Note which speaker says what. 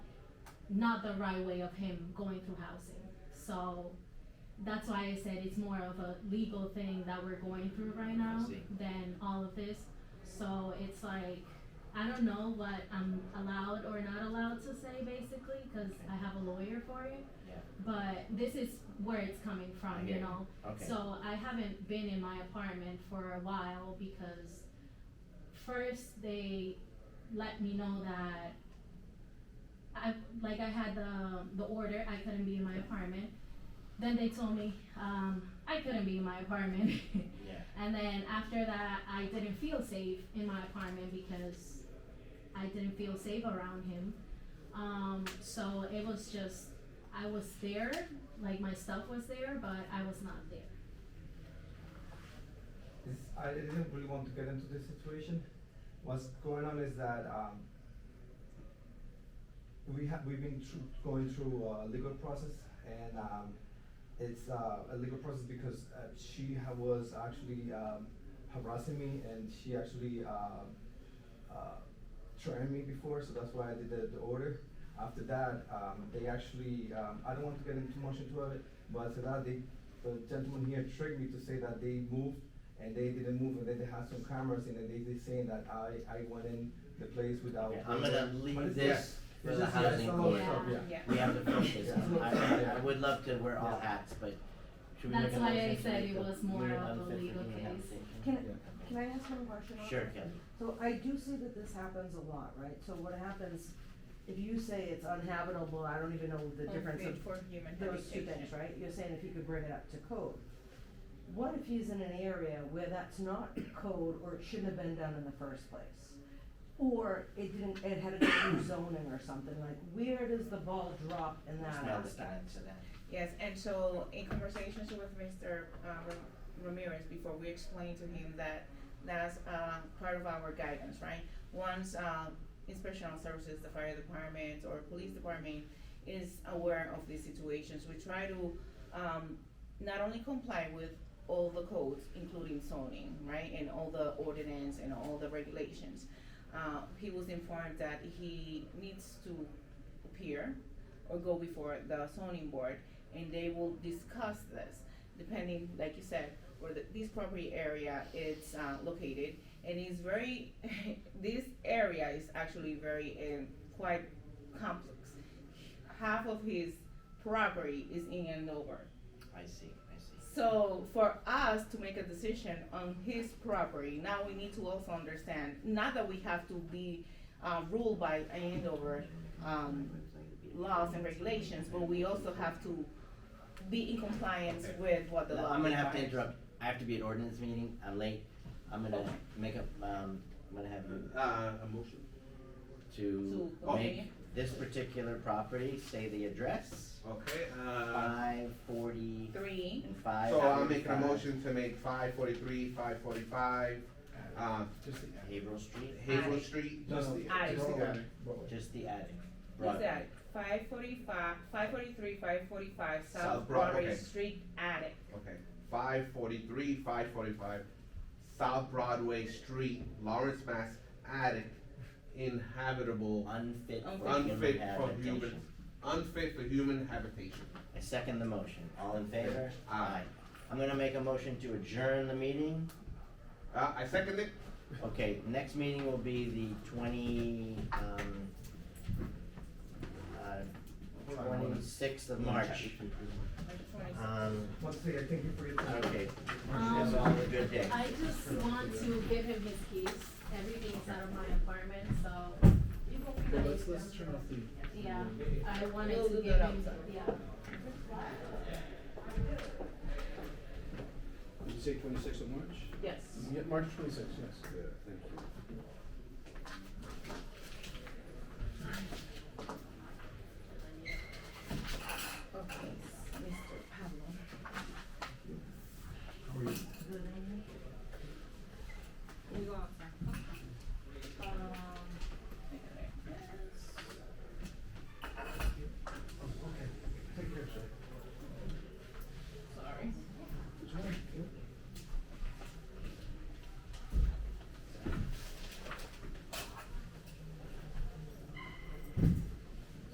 Speaker 1: not the right way of him going through housing. So that's why I said it's more of a legal thing that we're going through right now
Speaker 2: see.
Speaker 1: than all of this. So it's like I don't know what I'm allowed or not allowed to say basically because I have a lawyer for it.
Speaker 2: Yeah.
Speaker 1: But this is where it's coming
Speaker 2: I
Speaker 1: from,
Speaker 2: get
Speaker 1: you
Speaker 2: it.
Speaker 1: know.
Speaker 2: Okay.
Speaker 1: So I haven't been in my apartment for a while because first they let me know that I like I had the the order I couldn't be in my apartment. Then they told me um, I couldn't be in my apartment,
Speaker 2: yeah.
Speaker 1: and then after that I didn't feel safe in my apartment because I didn't feel safe around him. Um, so it was just I was there, like my stuff was there, but I was not there.
Speaker 3: This, I didn't really want to get into this situation. What's going on is that um, we have we've been through, going through a legal process, and um, it's uh, a legal process because uh, she ha- was actually um, harassing me, and she actually um uh, threatened me before, so that's why I did the, the order. After that, um, they actually um, I don't want to get into too much into it, but after that they the gentleman here tricked me to say that they moved and they didn't move, and then they had some cameras, and then they they saying that I, I went in the place without.
Speaker 2: Okay, I'm gonna leave
Speaker 3: But it's-
Speaker 2: this
Speaker 3: yeah,
Speaker 2: for
Speaker 3: it's
Speaker 2: the
Speaker 3: just- yeah,
Speaker 2: housing
Speaker 3: it's a lot of
Speaker 1: court.
Speaker 3: stuff, yeah.
Speaker 4: Yeah.
Speaker 2: We have to focus.
Speaker 3: Yeah.
Speaker 2: I, I, I would love to wear all
Speaker 3: Yeah.
Speaker 2: hats, but should we make
Speaker 1: That's
Speaker 2: a
Speaker 1: why
Speaker 2: motion
Speaker 1: I
Speaker 2: to
Speaker 1: said
Speaker 2: make
Speaker 1: it
Speaker 2: the
Speaker 1: was more
Speaker 2: unit
Speaker 1: of a
Speaker 2: unfit for
Speaker 1: legal
Speaker 2: human
Speaker 1: case.
Speaker 2: habitation?
Speaker 4: Can, can I ask one question? on
Speaker 2: Sure,
Speaker 4: that?
Speaker 2: Kelly.
Speaker 4: So I do see that this happens a lot, right? So what happens, if you say it's uninhabitable, I don't even know the difference of
Speaker 5: For human
Speaker 4: those two
Speaker 5: habitation.
Speaker 4: things, right? You're saying if you could bring it up to code. What if he's in an area where that's not code or it shouldn't have been done in the first place? Or it didn't, it had to do with zoning or something, like where does the ball drop in that
Speaker 2: It's
Speaker 4: aspect?
Speaker 2: not the time to that.
Speaker 5: Yes, and so in conversations with Mr. uh, Ra- Ramirez before, we explained to him that that's uh, part of our guidance, right? Once uh, inspectional services, the fire department or police department is aware of these situations, we try to um, not only comply with all the codes, including zoning, right, and all the ordinance and all the regulations. Uh, he was informed that he needs to appear or go before the zoning board and they will discuss this depending like you said where the, this property area is uh, located and it's very this area is actually very um, quite complex half of his property is in andover
Speaker 2: I see, I see.
Speaker 5: so for us to make a decision on his property, now we need to also understand, not that we have to be uh, ruled by Andover um, laws and regulations, but we also have to be in compliance with what the
Speaker 2: No,
Speaker 5: law.
Speaker 2: I'm gonna have to
Speaker 5: requires.
Speaker 2: interrupt. I have to be at ordinance meeting. I'm late. I'm gonna
Speaker 5: Okay.
Speaker 2: make up, um, I'm gonna have you
Speaker 6: Uh, a motion.
Speaker 2: to
Speaker 5: To
Speaker 2: make
Speaker 5: continue.
Speaker 2: this particular property, say the address,
Speaker 6: Okay, uh,
Speaker 2: five forty
Speaker 5: Three,
Speaker 2: and five.
Speaker 6: so I'm making a
Speaker 2: forty-five
Speaker 6: motion to make five forty-three, five forty-five, um,
Speaker 3: Uh, Just the attic.
Speaker 2: Haverhill Street,
Speaker 6: Hazel
Speaker 5: Attic.
Speaker 6: Street.
Speaker 3: No, no,
Speaker 6: Just
Speaker 3: just
Speaker 6: the-
Speaker 5: Attic.
Speaker 3: the
Speaker 6: just the attic.
Speaker 3: attic. Bro.
Speaker 2: just the attic.
Speaker 5: what's
Speaker 2: Broadway.
Speaker 5: that? Five forty-five, five forty-three, five forty-five,
Speaker 6: South
Speaker 5: South
Speaker 6: Broad-
Speaker 5: Broadway
Speaker 6: okay.
Speaker 5: Street attic.
Speaker 6: Okay, five forty-three, five forty-five, South Broadway Street, Lawrence, Mass, attic, inhabitable,
Speaker 2: Unfit for human
Speaker 5: Unfit
Speaker 6: Unfit for human.
Speaker 2: habitation.
Speaker 6: unfit for human habitation.
Speaker 2: I second the motion. All in favor?
Speaker 6: Aye.
Speaker 2: I'm gonna make a motion to adjourn the meeting.
Speaker 6: Uh, I second it.
Speaker 2: Okay, next meeting will be the twenty, um, uh, twenty-sixth of March. Um,
Speaker 3: Once again, thank you for your time.
Speaker 2: okay,
Speaker 1: Um,
Speaker 2: have all a good day.
Speaker 1: I just want to give him his keys. Everything's out of my apartment, so
Speaker 7: Okay, let's, let's turn off the.
Speaker 1: yeah, I wanted
Speaker 5: We'll
Speaker 1: to
Speaker 5: do
Speaker 1: give
Speaker 5: that
Speaker 1: him,
Speaker 5: outside.
Speaker 1: yeah.
Speaker 7: Did you say twenty-sixth of March?
Speaker 5: Yes.
Speaker 7: Yeah, March twenty-sixth, yes.
Speaker 6: Yeah, thank you.